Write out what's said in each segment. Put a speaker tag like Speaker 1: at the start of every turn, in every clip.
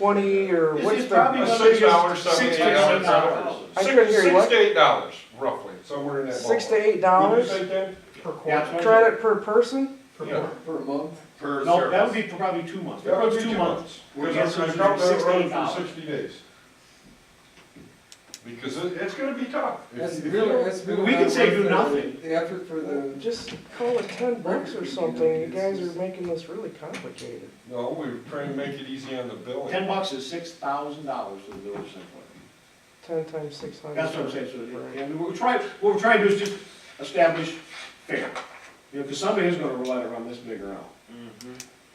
Speaker 1: twenty or
Speaker 2: Is
Speaker 1: what's
Speaker 2: it probably
Speaker 1: the,
Speaker 2: gonna-
Speaker 3: Six dollars, seven,
Speaker 2: Six
Speaker 3: eight dollars.
Speaker 2: to seven dollars.
Speaker 1: I
Speaker 3: Six-
Speaker 1: couldn't hear you,
Speaker 3: Six
Speaker 1: what?
Speaker 3: to eight dollars, roughly, somewhere in that ballpark.
Speaker 1: six to eight
Speaker 4: What did
Speaker 1: dollars
Speaker 4: you say, Dan? Per
Speaker 2: Yeah,
Speaker 4: quarter?
Speaker 1: credit per person?
Speaker 4: Per
Speaker 3: Yeah.
Speaker 4: quarter?
Speaker 5: per month.
Speaker 3: Per
Speaker 2: No, that
Speaker 3: service.
Speaker 2: would be probably two months,
Speaker 3: That would
Speaker 2: probably
Speaker 3: be
Speaker 2: two months. We're
Speaker 3: Because I'm
Speaker 2: guessing
Speaker 3: gonna drop that
Speaker 2: six to
Speaker 3: road
Speaker 2: eight
Speaker 3: for
Speaker 2: dollars.
Speaker 3: sixty days. Because it, it's gonna be tough. If-
Speaker 5: That's
Speaker 3: if-
Speaker 5: really, that's really.
Speaker 2: We can
Speaker 5: not
Speaker 2: say do
Speaker 5: worth the-
Speaker 2: nothing.
Speaker 5: The effort for the,
Speaker 1: Just call it ten bucks or something, you guys are making this really complicated.
Speaker 3: No, we were trying to make it easy on the billing.
Speaker 2: Ten bucks is six thousand dollars to the village of Central.
Speaker 1: Ten times six hundred.
Speaker 2: That's what I'm saying, so, and we're trying, what we're trying to do is just establish fair. You know, because somebody is gonna let it run this big around.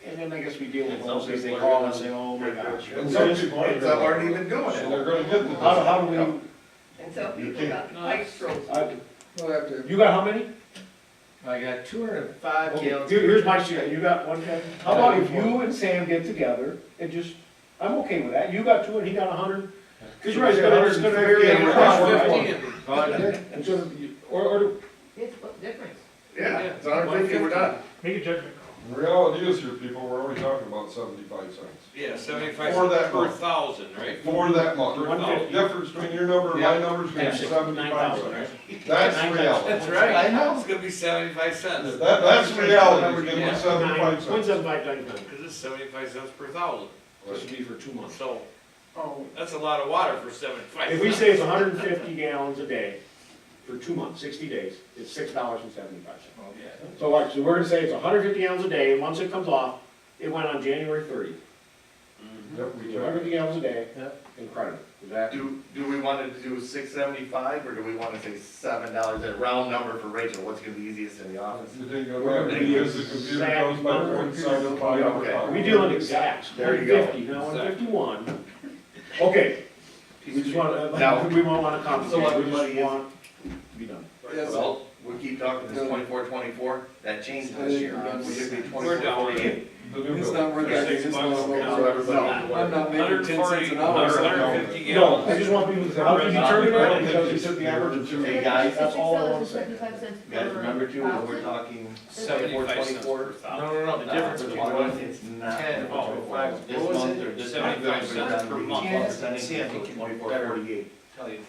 Speaker 2: And then I guess we deal with
Speaker 3: Mm-hmm. And
Speaker 2: those,
Speaker 3: some
Speaker 2: they
Speaker 3: people are
Speaker 2: call
Speaker 3: gonna-
Speaker 2: and say, oh my gosh.
Speaker 3: And some people aren't.
Speaker 2: How,
Speaker 3: aren't even doing it. And they're gonna get the.
Speaker 2: how do we,
Speaker 6: And so people got the pipe frozen.
Speaker 2: I-
Speaker 5: we'll have to,
Speaker 2: you got how many?
Speaker 7: I got two hundred and five
Speaker 2: Okay, here-
Speaker 7: gallons.
Speaker 2: Here's my share, you got one ten? How about if you and Sam get together and just, I'm okay with that, you got two and he got a hundred? Cause you're right, it's gonna, it's gonna vary.
Speaker 3: Yeah, we're not- we're not-
Speaker 2: Yeah,
Speaker 3: It's gonna be- Or, or,
Speaker 6: It's, what difference?
Speaker 7: it's hundred and fifty, we're done.
Speaker 4: Make a judgment
Speaker 3: the reality is here, people, we're only talking about seventy-five cents.
Speaker 8: Yeah, seventy-five
Speaker 3: For that
Speaker 8: cents per
Speaker 3: month.
Speaker 8: thousand, right?
Speaker 3: For that month.
Speaker 8: For
Speaker 3: The
Speaker 8: 150.
Speaker 3: Difference between your number and my number is gonna be seventy-five cents. That's reality.
Speaker 8: That's right. I know. It's gonna be seventy-five cents.
Speaker 3: That, that's reality, we're gonna
Speaker 8: Yeah.
Speaker 3: be seventy-five
Speaker 2: When's
Speaker 3: cents.
Speaker 2: that by done? This
Speaker 8: Cause it's seventy-five cents per thousand,
Speaker 2: would be for two months.
Speaker 8: so
Speaker 5: oh,
Speaker 8: that's a lot of water for seventy-five cents.
Speaker 2: If we say it's hundred and fifty gallons a day for two months, sixty days, it's six dollars and seventy-five cents.
Speaker 8: Oh,
Speaker 2: So like, so we're gonna say it's hundred and fifty gallons a day, and once it comes off, it went on January thirtieth.
Speaker 3: Yep, we
Speaker 2: hundred and
Speaker 3: can.
Speaker 2: fifty gallons a day,
Speaker 7: Yep.
Speaker 2: incredible, is that?
Speaker 7: Do, do we want to do six seventy-five, or do we want to say seven dollars, a round number for Rachel, what's gonna be easiest in the office?
Speaker 3: You didn't go back because the computer goes by point seven
Speaker 2: Yeah,
Speaker 3: five.
Speaker 7: okay.
Speaker 2: We deal in exacts,
Speaker 7: There
Speaker 2: one
Speaker 7: you go.
Speaker 2: fifty, now one fifty-one. Okay, we just wanna, uh,
Speaker 7: Now-
Speaker 2: we won't wanna
Speaker 7: So
Speaker 2: complicate, we
Speaker 7: everybody
Speaker 2: just
Speaker 7: is-
Speaker 2: want to be done.
Speaker 5: yes,
Speaker 7: Well, we keep talking this twenty-four, twenty-four, that changed this year, we should be
Speaker 8: We're
Speaker 7: twenty-four,
Speaker 8: down.
Speaker 7: forty-eight.
Speaker 3: The new
Speaker 5: it's
Speaker 3: bill.
Speaker 5: not worth
Speaker 8: There's
Speaker 5: that, it's
Speaker 8: six
Speaker 5: just
Speaker 8: bucks
Speaker 5: not
Speaker 8: now.
Speaker 5: worth it.
Speaker 7: No.
Speaker 5: I'm not making
Speaker 8: Hundred
Speaker 5: ten cents an hour.
Speaker 3: or something.
Speaker 8: hundred fifty
Speaker 2: No,
Speaker 8: gallons.
Speaker 2: I just want people to say, how do you determine that, because you took the average of two.
Speaker 7: Hey, guys.
Speaker 2: That's all I wanna say.
Speaker 6: Seventy-five cents
Speaker 7: You
Speaker 6: per
Speaker 7: guys remember too, when we're
Speaker 6: thousand?
Speaker 7: talking twenty-four,
Speaker 8: Seventy-five cents per
Speaker 7: twenty-four?
Speaker 8: thousand.
Speaker 7: no, no,
Speaker 8: the difference between one
Speaker 7: It's not.
Speaker 8: 10 and
Speaker 7: what we're
Speaker 8: five.
Speaker 7: This
Speaker 8: What was
Speaker 7: month
Speaker 8: it?
Speaker 7: or this month,
Speaker 8: 75 cents per month. See, I think it
Speaker 7: twenty-four,
Speaker 8: better.
Speaker 7: forty-eight.
Speaker 8: Tell you.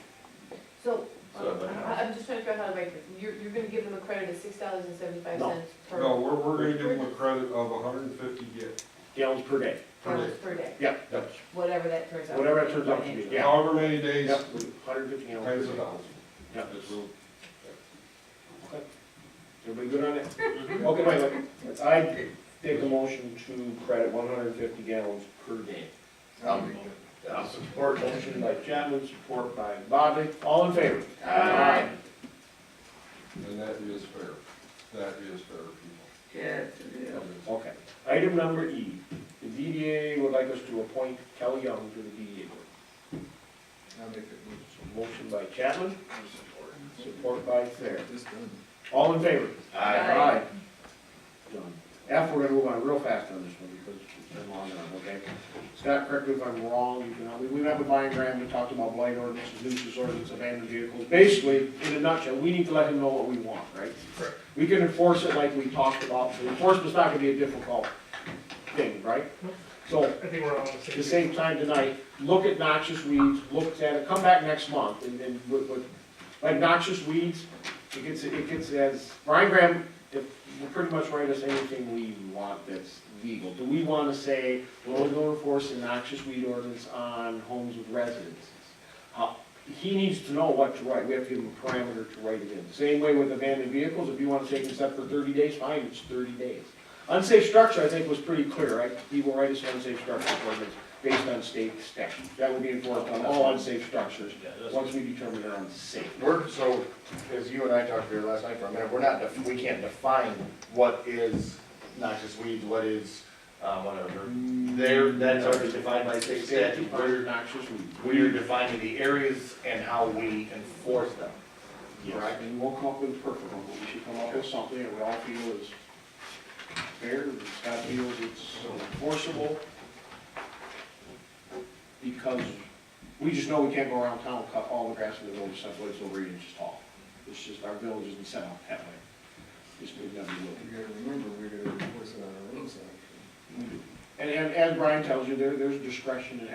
Speaker 9: So, uh,
Speaker 7: So, but- uh,
Speaker 9: I, I'm just trying to figure out how to make this, you're, you're gonna give them a credit of six dollars and seventy-five
Speaker 2: No.
Speaker 9: cents per,
Speaker 3: No, we're, we're gonna give them a credit of hundred and fifty get,
Speaker 2: Gallons per day,
Speaker 9: per, per day,
Speaker 2: yeah,
Speaker 9: whatever that turns out.
Speaker 2: whatever that turns out to be, yeah.
Speaker 3: however many days,
Speaker 2: Yep, hundred fifty
Speaker 3: times
Speaker 2: gallons.
Speaker 3: a thousand.
Speaker 2: Yeah.
Speaker 3: It's real-
Speaker 2: Everybody good on
Speaker 7: Mm-hmm.
Speaker 2: that? Okay, wait, wait. I take the motion to credit one hundred and fifty gallons per day.
Speaker 7: I'll, I'll
Speaker 2: Support motion by Chapman, support by Bobby, all in favor?
Speaker 6: Aye.
Speaker 3: And that is fair, that is fair, people.
Speaker 6: Yes, it is.
Speaker 2: Okay. Item number E, the DDA would like us to appoint Kelly Young to the DDA board.
Speaker 5: I'll make it,
Speaker 2: So Motion by Chapman, support by Thayer.
Speaker 5: just done.
Speaker 2: All in favor?
Speaker 7: Aye.
Speaker 2: Done. F, we're gonna move on real fast on this one because it's been long enough, okay? Scott, correct me if I'm wrong, you can, help me. we have a diagram, we talked about blight ordinances, nuisance ordinance, abandoned vehicles. Basically, in a nutshell, we need to let him know what we want, right?
Speaker 7: Correct.
Speaker 2: We can enforce it like we talked about, The enforcement's not gonna be a difficult thing, right? So,
Speaker 4: I think we're all on the
Speaker 2: at
Speaker 4: same.
Speaker 2: the same time tonight, look at noxious weeds, look at it, come back next month, and then with, with, like noxious weeds, it gets, it gets as, Brian Graham, if, will pretty much write us anything we want that's legal. Do we wanna say, we're only gonna enforce the noxious weed ordinance on homes with residences? Uh, He needs to know what to write, we have to give him a parameter to write it in. Same way with abandoned vehicles, if you wanna take them set for thirty days, fine, it's thirty days. Unsafe structure, I think, was pretty clear, right? He will write us an unsafe structure ordinance based on state statute. That would be enforced on all unsafe structures, once we determine they're unsafe.
Speaker 7: We're, so, as you and I talked here last night for a minute, we're not, def- we can't define what is noxious weed, what is, uh, whatever. There, that's already defined by state statute,
Speaker 2: Very
Speaker 7: we're,
Speaker 2: noxious weeds.
Speaker 7: we're defining the areas and how we enforce them.
Speaker 2: Yes, and we'll come up with a perfect one, but we should come up with something that we all feel is fair, that Scott feels it's enforceable. Because we just know we can't go around town and cut all the grass in the village except when it's over eight inches tall. It's just, our village isn't set up that way. Just we've never looked.
Speaker 5: You gotta remember, we gotta enforce it on our own side.
Speaker 2: And, and as Brian tells you, there, there's discretion in